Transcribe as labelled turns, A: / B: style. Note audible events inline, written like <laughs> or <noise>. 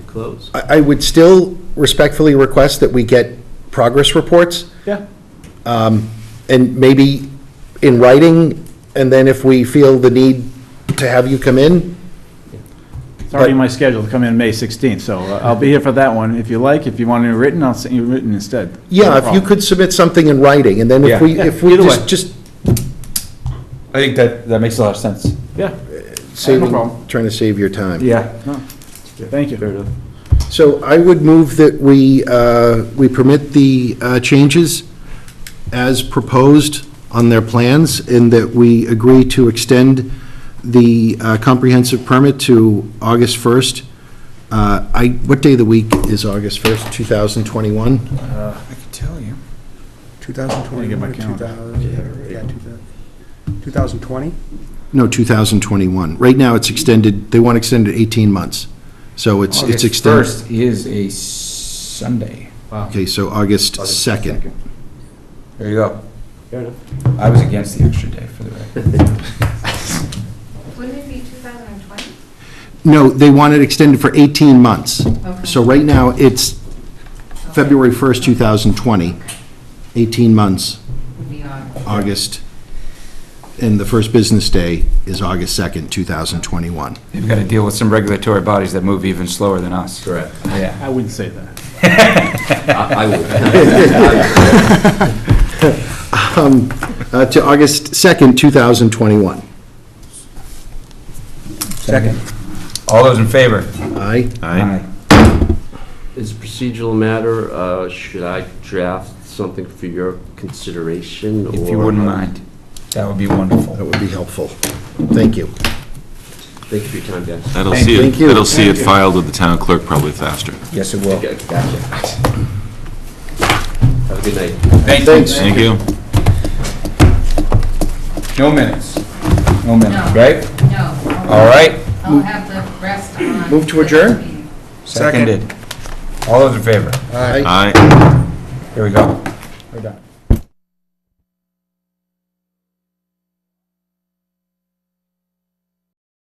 A: close.
B: I, I would still respectfully request that we get progress reports,
A: Yeah.
B: and maybe in writing, and then if we feel the need to have you come in,
C: It's already in my schedule to come in May 16th, so uh, I'll be here for that one. If you like, if you want it written, I'll send you written instead. No
B: yeah, if you
C: problem.
B: could submit something in writing, and then if
D: Yeah.
B: we, if we
C: Either
B: just,
C: way.
B: just
D: I think that, that makes a lot of sense.
C: Yeah,
B: saving,
C: problem.
B: trying to save your time.
D: Yeah.
C: thank you.
A: enough.
B: So I would move that we, uh, we permit the uh, changes as proposed on their plans, and that we agree to extend the uh, comprehensive permit to August 1st. Uh, I, what day of the week is August 1st, 2021?
E: I can tell you.
C: Let me get my
E: 2021,
C: calendar.
E: 2000, yeah, 2000 2020?
B: No, 2021. Right now, it's extended, they want extended 18 months, so it's, it's extended.
D: First is a Sunday.
B: Okay, so August 2nd.
D: There you go.
A: Fair enough.
D: I was against the extra day for the record.
F: Wouldn't it be 2020?
B: No, they want it extended for 18 months. So right now, it's February 1st, 2020, 18 months,
F: Would be on.
B: August, and the first business day is August 2nd, 2021.
D: They've got to deal with some regulatory bodies that move even slower than us.
A: Correct.
D: Yeah.
C: I wouldn't say that.
A: I
D: <laughs>
A: I
B: <laughs>
A: would.
B: Um, uh, To August 2nd, 2021.
D: Second. All those in favor?
B: Aye?
D: Aye.
A: As a procedural matter, uh, should I draft something for your consideration?
D: If you
A: or-
D: wouldn't mind, that would be wonderful.
B: That would be helpful. Thank you.
A: Thank you for your time, guys.
G: That'll
D: Thank
G: see it,
B: Thank you.
G: that'll see it filed with the town clerk probably faster.
D: Yes, it will.
A: Okay, gotcha. Have a good night.
D: Thank you.
B: Thanks.
G: Thank you.
D: No minutes. No minutes,
F: No.
D: right?
F: No.
D: All right.
F: I'll have the rest on.
B: Move to
F: the next
B: adjourn?
F: meeting.
D: Seconded. All those in favor?
B: Aye.
G: Aye.
D: Here we go. We're done.